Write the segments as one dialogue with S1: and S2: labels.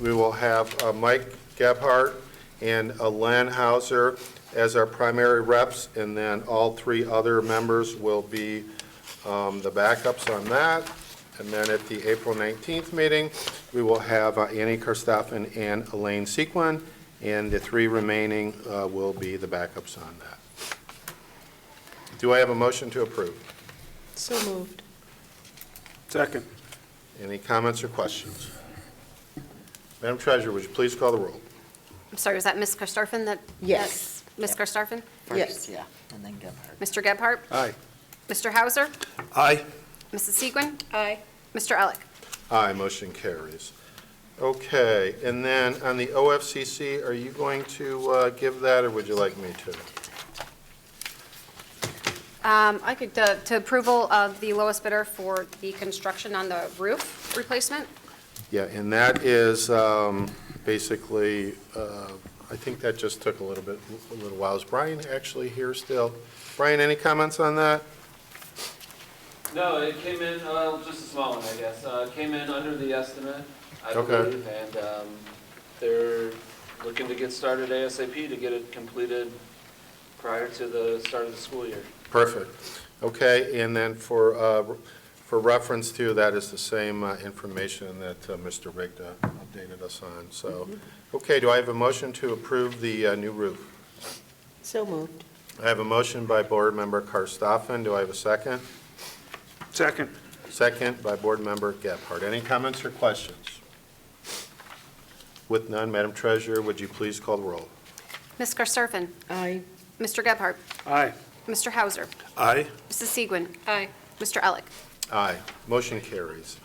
S1: we will have uh, Mike Gebhardt and uh, Len Hauser as our primary reps, and then all three other members will be um, the backups on that. And then at the April 19th meeting, we will have uh, Annie Karstoffen and Elaine Sequin, and the three remaining uh, will be the backups on that. Do I have a motion to approve?
S2: So moved.
S3: Second.
S1: Any comments or questions? Madam Treasurer, would you please call the roll?
S4: I'm sorry, was that Ms. Karstoffen that?
S2: Yes.
S4: that's Ms. Karstoffen?
S2: Yes.
S5: first, yeah, and then Gebhardt.
S4: Mr. Gebhardt?
S3: Aye.
S4: Mr. Hauser?
S3: Aye.
S4: Mrs. Segwin?
S2: Aye.
S4: Mr. Alec?
S1: Aye, motion carries. Okay, and then on the OFCC, are you going to uh, give that, or would you like me to?
S4: Um, I could, uh, to approval of the lowest bidder for the construction on the roof replacement?
S1: Yeah, and that is um, basically, uh, I think that just took a little bit, a little while. Is Brian actually here still? Brian, any comments on that?
S6: No, it came in, uh, just a small one, I guess. Uh, it came in under the estimate, I
S1: Okay.
S6: believe, and, um, they're looking to get started ASAP to get it completed prior to the start of the school year.
S1: Perfect. Okay, and then for, uh, for reference to, that is the same uh, information that uh, Mr. Rigda updated us on, so. Okay, do I have a motion to approve the uh, new roof?
S2: So moved.
S1: I have a motion by Board Member Karstoffen. Do I have a second?
S3: Second.
S1: Second by Board Member Gephardt. Any comments or questions? With none, Madam Treasurer, would you please call the roll?
S4: Ms. Karstoffen?
S2: Aye.
S4: Mr. Gebhardt?
S3: Aye.
S4: Mr. Hauser?
S3: Aye.
S4: Mrs. Segwin? Aye. Mr. Alec?
S1: Aye. Motion carries.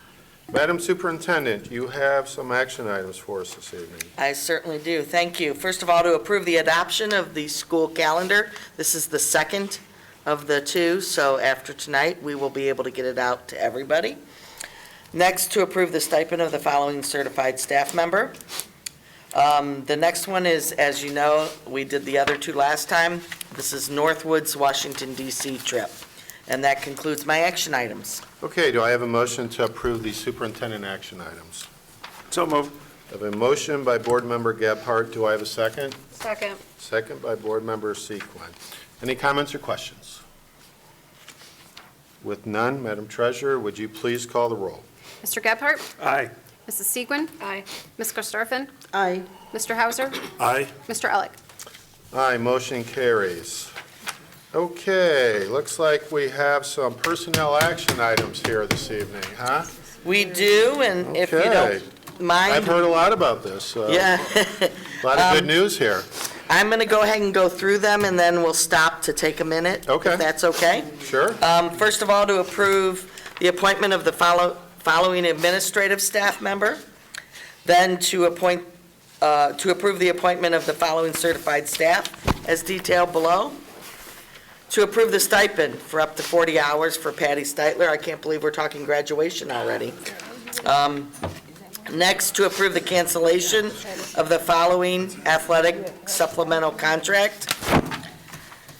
S1: Madam Superintendent, you have some action items for us this evening.
S5: I certainly do, thank you. First of all, to approve the adoption of the school calendar. This is the second of the two, so after tonight, we will be able to get it out to everybody. Next, to approve the stipend of the following certified staff member. Um, The next one is, as you know, we did the other two last time. This is Northwood's Washington DC trip. And that concludes my action items.
S1: Okay, do I have a motion to approve the superintendent action items?
S3: So moved.
S1: I have a motion by Board Member Gebhardt. Do I have a second?
S4: Second.
S1: Second by Board Member Sequin. Any comments or questions? With none, Madam Treasurer, would you please call the roll?
S4: Mr. Gebhardt?
S3: Aye.
S4: Mrs. Segwin? Aye. Ms. Karstoffen?
S2: Aye.
S4: Mr. Hauser?
S3: Aye.
S4: Mr. Alec?
S1: Aye, motion carries. Okay, looks like we have some personnel action items here this evening, huh?
S5: We do, and if you
S1: Okay.
S5: don't mind.
S1: I've heard a lot about this. uh,
S5: Yeah.
S1: A lot of good
S5: Um,
S1: news here.
S5: I'm going to go ahead and go through them, and then we'll stop to take a minute.
S1: Okay.
S5: If that's okay.
S1: Sure?
S5: Um, First of all, to approve the appointment of the follow- following administrative staff member, then to appoint, uh, to approve the appointment of the following certified staff as detailed below, to approve the stipend for up to 40 hours for Patty Steitler. I can't believe we're talking graduation already. Um, Next, to approve the cancellation of the following athletic supplemental contract,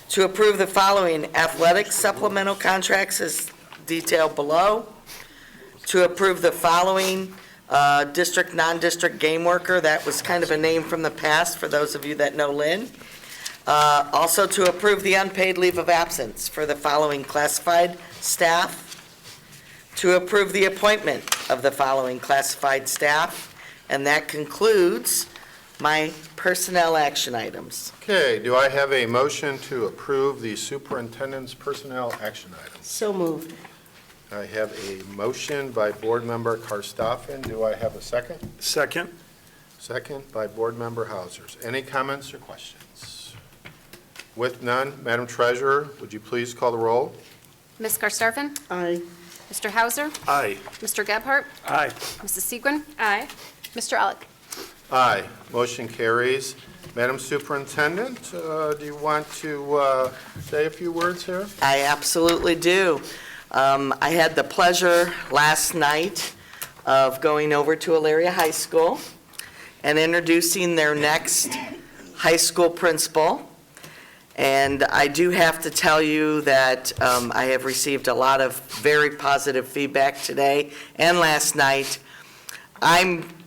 S5: to approve the following athletic supplemental contracts as detailed below, to approve the following uh, district, non-district game worker, that was kind of a name from the past for those of you that know Lynn. Uh, Also to approve the unpaid leave of absence for the following classified staff, to approve the appointment of the following classified staff, and that concludes my personnel action items.
S1: Okay, do I have a motion to approve the superintendent's personnel action items?
S2: So moved.
S1: I have a motion by Board Member Karstoffen. Do I have a second?
S3: Second.
S1: Second by Board Member Hausers. Any comments or questions? With none, Madam Treasurer, would you please call the roll?
S4: Ms. Karstoffen?
S2: Aye.
S4: Mr. Hauser?
S3: Aye.
S4: Mr. Gebhardt?
S3: Aye.
S4: Mrs. Segwin? Aye. Mr. Alec?
S1: Aye, motion carries. Madam Superintendent, uh, do you want to uh, say a few words here?
S5: I absolutely do. Um, I had the pleasure last night of going over to Elyria High School and introducing their next high school principal. And I do have to tell you that um, I have received a lot of very positive feedback today and last night. I'm